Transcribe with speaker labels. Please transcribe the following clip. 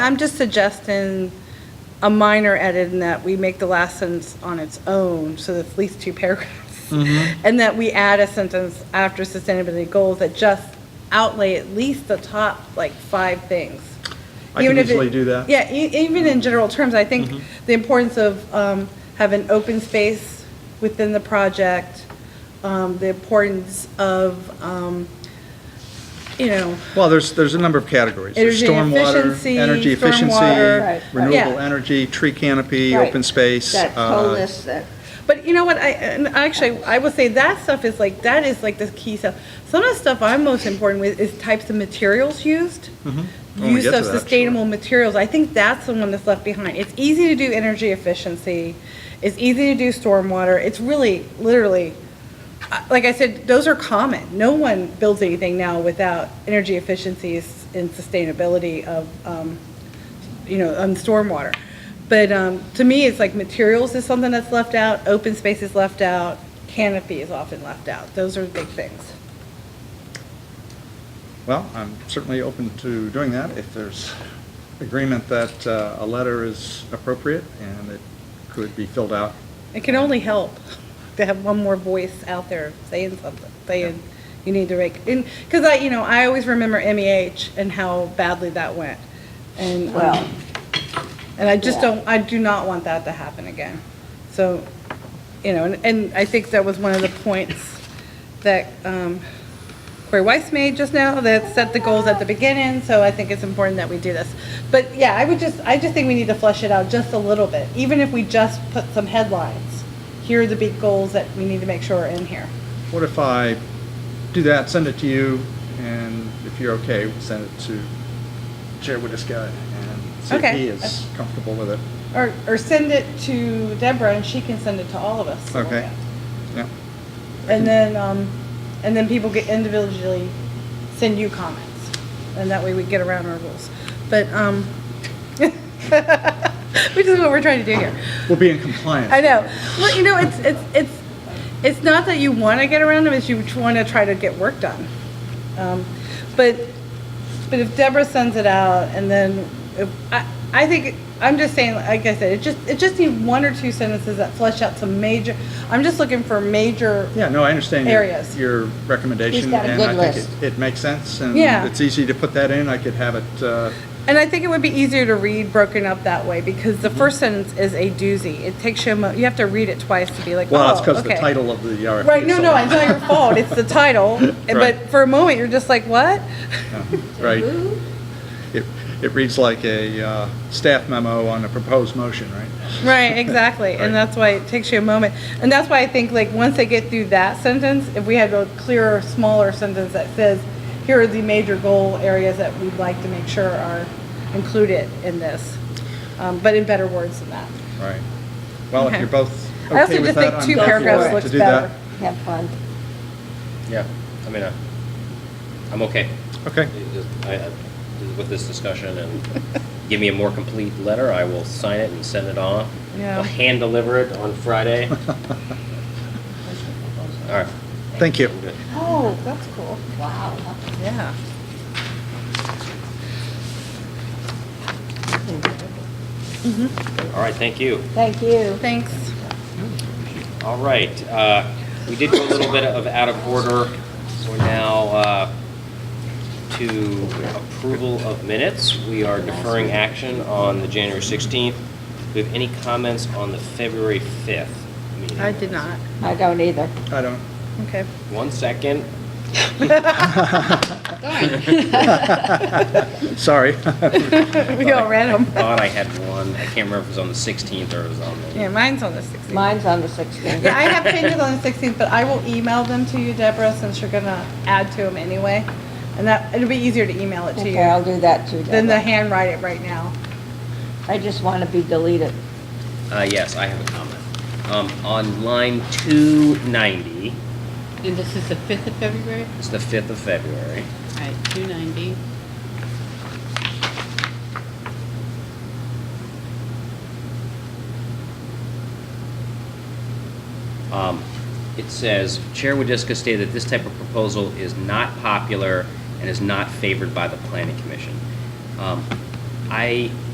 Speaker 1: I'm just suggesting a minor edit in that we make the last sentence on its own, so that's at least two paragraphs.
Speaker 2: Mm-hmm.
Speaker 1: And that we add a sentence after sustainability goals that just outlay at least the top, like, five things.
Speaker 2: I can
Speaker 1: Even if it-
Speaker 2: easily do that. Mm-hmm.
Speaker 1: Yeah, e- even in general terms, I think the importance of um, having open space within the project, um, the importance of, um, you know,
Speaker 2: Well, there's, there's a number of categories. There's
Speaker 1: Energy
Speaker 2: stormwater,
Speaker 1: efficiency,
Speaker 2: energy
Speaker 1: stormwater,
Speaker 3: Right.
Speaker 2: efficiency, renewable
Speaker 1: Yeah.
Speaker 2: energy, tree canopy,
Speaker 3: Right.
Speaker 2: open space.
Speaker 3: That
Speaker 2: uh,
Speaker 3: whole list, that,
Speaker 1: But you know what? I and actually I would say that stuff is like that is like the key stuff. Some of the stuff I'm most important with is types of materials used.
Speaker 2: When Mm-hmm. we
Speaker 1: Use
Speaker 2: get
Speaker 1: of
Speaker 2: to that,
Speaker 1: sustainable materials. I think that's the one that's left behind. It's easy to do energy efficiency. It's easy to do stormwater. It's really literally I- like I said, those are common. No one builds anything now without energy efficiencies and sustainability of, um, you know, on stormwater. But um, to me, it's like materials is something that's left out, open space is left out, canopy is often left out. Those are big things.
Speaker 2: Well, I'm certainly open to doing that if there's agreement that uh, a letter is appropriate and it could be filled out.
Speaker 1: It can only help to have one more voice out there saying something, saying you need to make, and, because I, you know, I always remember MEH and how badly that went. And, um,
Speaker 3: well,
Speaker 1: And I just
Speaker 3: Yeah.
Speaker 1: don't, I do not want that to happen again. So, you know, and, and I think that was one of the points that um, Corey Weiss made just now, that set the goals at the beginning, so I think it's important that we do this. But yeah, I would just, I just think we need to flesh it out just a little bit, even if we just put some headlines. Here are the big goals that we need to make sure are in here.
Speaker 2: What if I do that, send it to you, and if you're okay, send it to Chair Widdicka and see if
Speaker 1: Okay.
Speaker 2: he is comfortable with it.
Speaker 1: Or, or send it to Deborah and she can send it to all of us.
Speaker 2: Okay. Yeah.
Speaker 1: And then, um, and then people get individually send you comments, and that way we get around our rules. But, um, which is what we're trying to do here.
Speaker 2: We'll be in compliance.
Speaker 1: I know. Well, you know, it's, it's, it's, it's not that you want to get around them, it's you want to try to get work done. Um, But, but if Deborah sends it out and then, if- I, I think, I'm just saying, like I said, it just, it just needs one or two sentences that flesh out some major, I'm just looking for major
Speaker 2: Yeah, no, I understand your-
Speaker 1: Areas.
Speaker 2: your recommendation.
Speaker 3: He's got a
Speaker 2: and I
Speaker 3: good
Speaker 2: think
Speaker 3: list.
Speaker 2: it- It makes sense, and
Speaker 1: Yeah.
Speaker 2: it's easy to put that in. I could have it, uh,
Speaker 1: And I think it would be easier to read broken up that way because
Speaker 2: Mm-hmm.
Speaker 1: the first sentence is a doozy. It takes you, a mo- you have to read it twice to be like, oh, okay.
Speaker 2: well, it's because the title of the RFP.
Speaker 1: Right,
Speaker 2: is
Speaker 1: no,
Speaker 2: so
Speaker 1: no,
Speaker 2: long.
Speaker 1: it's not your fault. It's the title. And-
Speaker 2: Right.
Speaker 1: But for a moment, you're just like, what?
Speaker 2: Right. It, it reads like a uh, staff memo on a proposed motion, right?
Speaker 1: Right, exactly.
Speaker 2: Right.
Speaker 1: And that's why it takes you a moment. And that's why I think like, once they get through that sentence, if we had a clearer, smaller sentence that says, here are the major goal areas that we'd like to make sure are included in this, um, but in better words than that.
Speaker 2: Right. Well, if
Speaker 1: Okay.
Speaker 2: you're both
Speaker 1: I also
Speaker 2: okay with
Speaker 1: just
Speaker 2: that,
Speaker 1: think
Speaker 2: I'm
Speaker 1: two
Speaker 2: happy
Speaker 1: paragraphs
Speaker 2: to
Speaker 1: looks
Speaker 2: do that.
Speaker 1: better.
Speaker 3: have fun.
Speaker 4: Yeah, I mean, I- I'm okay.
Speaker 2: Okay,
Speaker 4: It just- I- I- With this discussion and give me a more complete letter, I will sign it and send it off.
Speaker 1: Yeah.
Speaker 4: I'll hand deliver it on Friday. All right.
Speaker 2: thank you.
Speaker 4: I'm good.
Speaker 1: Oh, that's cool.
Speaker 3: Wow.
Speaker 1: Yeah.
Speaker 4: All right, thank you.
Speaker 3: Thank you.
Speaker 1: Thanks.
Speaker 4: All right, uh, we did go a little bit of out of order. We're now uh, to approval of minutes. We are deferring action on the January 16th. Do we have any comments on the February 5th meeting?
Speaker 1: I did not.
Speaker 3: I don't either.
Speaker 2: I don't,
Speaker 1: Okay.
Speaker 4: One second.
Speaker 2: sorry.
Speaker 1: We all read them.
Speaker 4: Thought I had one. I can't remember if it was on the 16th or it was on
Speaker 1: Yeah,
Speaker 4: the,
Speaker 1: mine's on the 16th.
Speaker 3: Mine's on the 16th.
Speaker 1: Yeah, I have changes on the 16th, but I will email them to you, Deborah, since you're gonna add to them anyway. And that, it'll be easier to email it to
Speaker 3: Okay, I'll
Speaker 1: you
Speaker 3: do that too,
Speaker 1: than to
Speaker 3: Deborah.
Speaker 1: handwrite it right now.
Speaker 3: I just want to be deleted.
Speaker 4: uh, yes, I have a comment. Um, On line 290,
Speaker 5: And this is the 5th of February?
Speaker 4: it's the 5th of February.
Speaker 5: All right, 290.
Speaker 4: Um, It says, "Chair Wadiska stated that this type of proposal is not popular and is not favored by the planning commission." Um, I